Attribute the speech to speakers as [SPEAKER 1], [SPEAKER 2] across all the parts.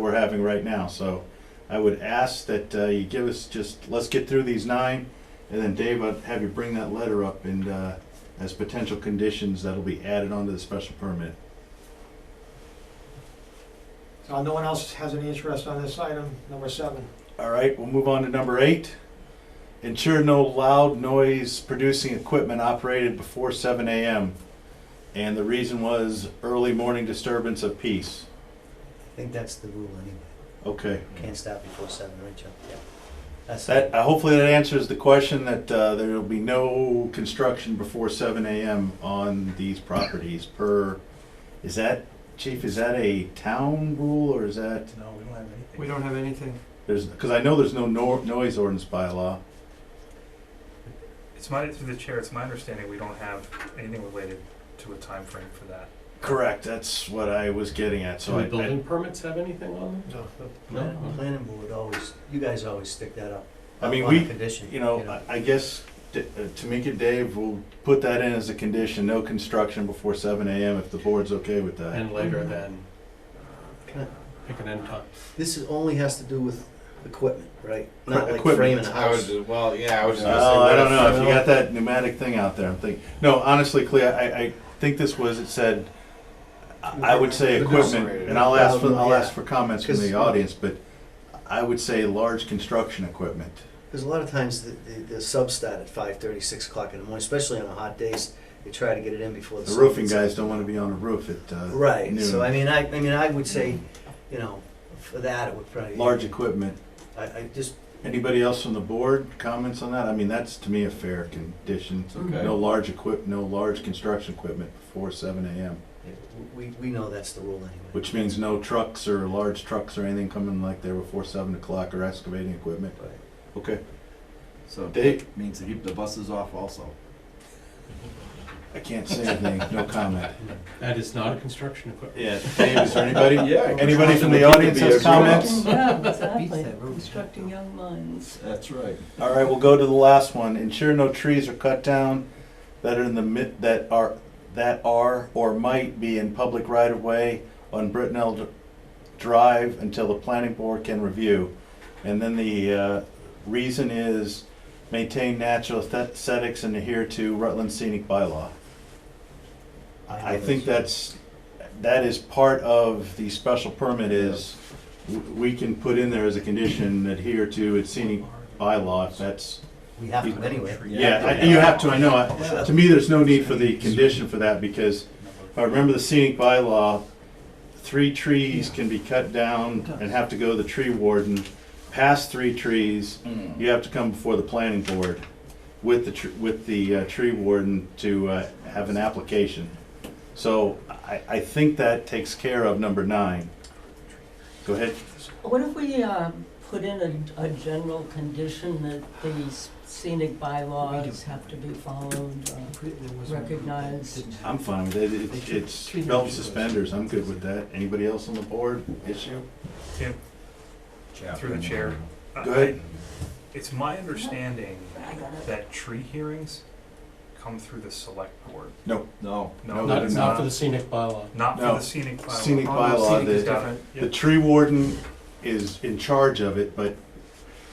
[SPEAKER 1] we're having right now. So I would ask that uh, you give us just, let's get through these nine, and then Dave, I'd have you bring that letter up and uh, as potential conditions that'll be added onto the special permit.
[SPEAKER 2] So no one else has any interest on this item, number seven.
[SPEAKER 1] All right, we'll move on to number eight. Ensure no loud noise producing equipment operated before seven AM. And the reason was early morning disturbance of peace.
[SPEAKER 3] I think that's the rule anyway.
[SPEAKER 1] Okay,
[SPEAKER 3] Can't stop before seven, right, Chuck? Yeah. That's
[SPEAKER 1] that, uh, hopefully that answers the question that, uh, there'll be no construction before seven AM on these properties per, is that, chief, is that a town rule or is that,
[SPEAKER 3] No, we don't have anything.
[SPEAKER 4] We don't have anything.
[SPEAKER 1] there's, cause I know there's no nor- noise ordinance bylaw.
[SPEAKER 5] It's my, through the chair, it's my understanding we don't have anything related to a time frame for that.
[SPEAKER 1] Correct, that's what I was getting at, so
[SPEAKER 6] Do
[SPEAKER 1] I.
[SPEAKER 6] the
[SPEAKER 1] I-
[SPEAKER 6] building permits have anything on
[SPEAKER 2] No.
[SPEAKER 6] them?
[SPEAKER 7] Mm-hmm.
[SPEAKER 3] Plan- Planning board always, you guys always stick that up.
[SPEAKER 1] I mean,
[SPEAKER 3] up on a
[SPEAKER 1] we-
[SPEAKER 3] Condition.
[SPEAKER 1] You know, I I guess D- uh, Tamika Dave will put that in as a condition, no construction before seven AM if the board's okay with that.
[SPEAKER 6] And later than, pick an end time.
[SPEAKER 3] This is, only has to do with equipment, right?
[SPEAKER 1] Right,
[SPEAKER 3] Not like
[SPEAKER 1] equipment.
[SPEAKER 3] framing a
[SPEAKER 8] I would,
[SPEAKER 3] house.
[SPEAKER 8] ju- well, yeah, I was just gonna say.
[SPEAKER 1] Well, I
[SPEAKER 8] what
[SPEAKER 1] don't know, if you
[SPEAKER 8] well,
[SPEAKER 1] got that pneumatic thing out there, I'm thinking, no, honestly, Clea, I, I think this was, it said, I I would say
[SPEAKER 8] The
[SPEAKER 1] equipment,
[SPEAKER 8] numerator.
[SPEAKER 1] and I'll ask for, I'll
[SPEAKER 3] Yeah.
[SPEAKER 1] ask for comments from the
[SPEAKER 3] Because-
[SPEAKER 1] audience, but I would say large construction equipment.
[SPEAKER 3] Because a lot of times the, the, the subs start at five thirty, six o'clock in the morning, especially on the hot days. They try to get it in before the.
[SPEAKER 1] The
[SPEAKER 3] sun
[SPEAKER 1] roofing
[SPEAKER 3] gets
[SPEAKER 1] guys
[SPEAKER 3] up.
[SPEAKER 1] don't wanna be on a roof at uh,
[SPEAKER 3] Right, so I
[SPEAKER 1] noon.
[SPEAKER 3] mean, I, I mean, I would say, you know, for that, it would probably.
[SPEAKER 1] Large equipment.
[SPEAKER 3] I, I just,
[SPEAKER 1] Anybody else from the board comments on that? I mean, that's to me a fair condition.
[SPEAKER 6] Okay.
[SPEAKER 1] No large equip, no large construction equipment before seven AM,
[SPEAKER 3] we, we know that's the rule anyway.
[SPEAKER 1] which means no trucks or large trucks or anything coming like there before seven o'clock or excavating equipment.
[SPEAKER 3] Right.
[SPEAKER 1] Okay.
[SPEAKER 8] So
[SPEAKER 1] Dave?
[SPEAKER 8] that means to keep the buses off also.
[SPEAKER 1] I can't say anything, no comment.
[SPEAKER 6] That is not a construction equipment.
[SPEAKER 1] Yeah, Dave, is there anybody?
[SPEAKER 8] Yeah.
[SPEAKER 1] Anybody from the audience has comments?
[SPEAKER 9] Yeah,
[SPEAKER 3] Beats
[SPEAKER 9] exactly.
[SPEAKER 3] that room.
[SPEAKER 9] Constructing young minds.
[SPEAKER 8] That's right.
[SPEAKER 1] All right, we'll go to the last one. Ensure no trees are cut down that are in the mid, that are, that are or might be in public right of way on Brittenell Dr- Drive until the planning board can review. And then the, uh, reason is maintain natural aesthetics and adhere to Rutland scenic bylaw. I think that's, that is part of the special permit is, w- we can put in there as a condition adhere to its scenic bylaw, if that's,
[SPEAKER 3] We have to anyway.
[SPEAKER 1] yeah, I- you have to, I know. I- To me, there's no need for the condition for that, because if I remember the scenic bylaw, three trees can be cut down and have to go to the tree warden. Past three trees, you have to come before the planning board with the, tr- with the uh, tree warden to uh, have an application. So I, I think that takes care of number nine. Go ahead.
[SPEAKER 9] What if we, um, put in a, a general condition that the scenic bylaws have to be followed? uh, recognized.
[SPEAKER 1] I'm fine with it. It's- It's belt and suspenders. I'm good with that. Anybody else on the board issue?
[SPEAKER 5] Tim, through the chair. I-
[SPEAKER 1] Go ahead.
[SPEAKER 5] I- It's my understanding
[SPEAKER 9] I got it.
[SPEAKER 5] that tree hearings come through the select board.
[SPEAKER 8] No.
[SPEAKER 5] No,
[SPEAKER 1] No,
[SPEAKER 6] Not,
[SPEAKER 1] it's
[SPEAKER 6] not for the scenic bylaw.
[SPEAKER 5] Not for
[SPEAKER 1] No.
[SPEAKER 5] the scenic bylaw.
[SPEAKER 1] Scenic bylaw,
[SPEAKER 4] Scenic is
[SPEAKER 1] the,
[SPEAKER 4] different.
[SPEAKER 1] the tree warden is in charge of it, but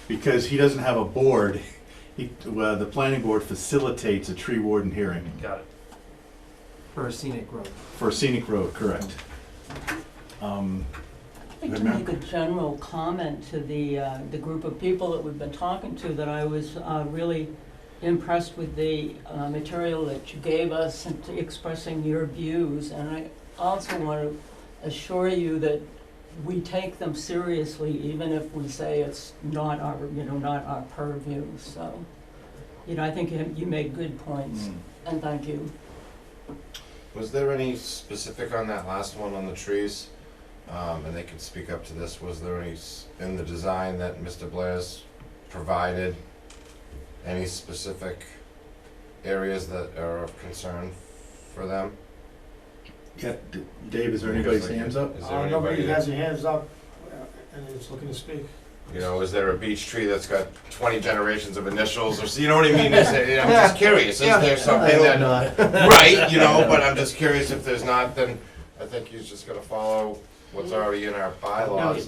[SPEAKER 1] because he doesn't have a board, he, well, the planning board facilitates a tree warden hearing
[SPEAKER 5] Got it.
[SPEAKER 4] For a scenic road.
[SPEAKER 1] for scenic road, correct? Um,
[SPEAKER 9] I'd like to make a general comment to the, uh, the group of people that we've been talking to, that I was uh, really impressed with the uh, material that you gave us and to expressing your views. And I also want to assure you that we take them seriously, even if we say it's not our, you know, not our purview. So, you know, I think you- you made good points, and thank you.
[SPEAKER 7] Was there any specific on that last one on the trees? Um, and they could speak up to this, was there any, s- in the design that Mr. Blair's provided, any specific areas that are of concern for them?
[SPEAKER 1] yeah, D- Dave, is there anybody's hands up?
[SPEAKER 7] Is there
[SPEAKER 2] Uh, Nobody
[SPEAKER 7] anybody,
[SPEAKER 2] has
[SPEAKER 7] that-
[SPEAKER 2] their hands up uh, and is looking to speak.
[SPEAKER 7] you know, is there a beech tree that's got twenty generations of initials or, s- you know what I mean? Is there- I'm just curious, is there
[SPEAKER 3] I
[SPEAKER 7] something
[SPEAKER 3] hope
[SPEAKER 7] that,
[SPEAKER 3] not.
[SPEAKER 7] right, you know, but I'm just curious if there's not, then I think he's just gonna follow what's already in our bylaws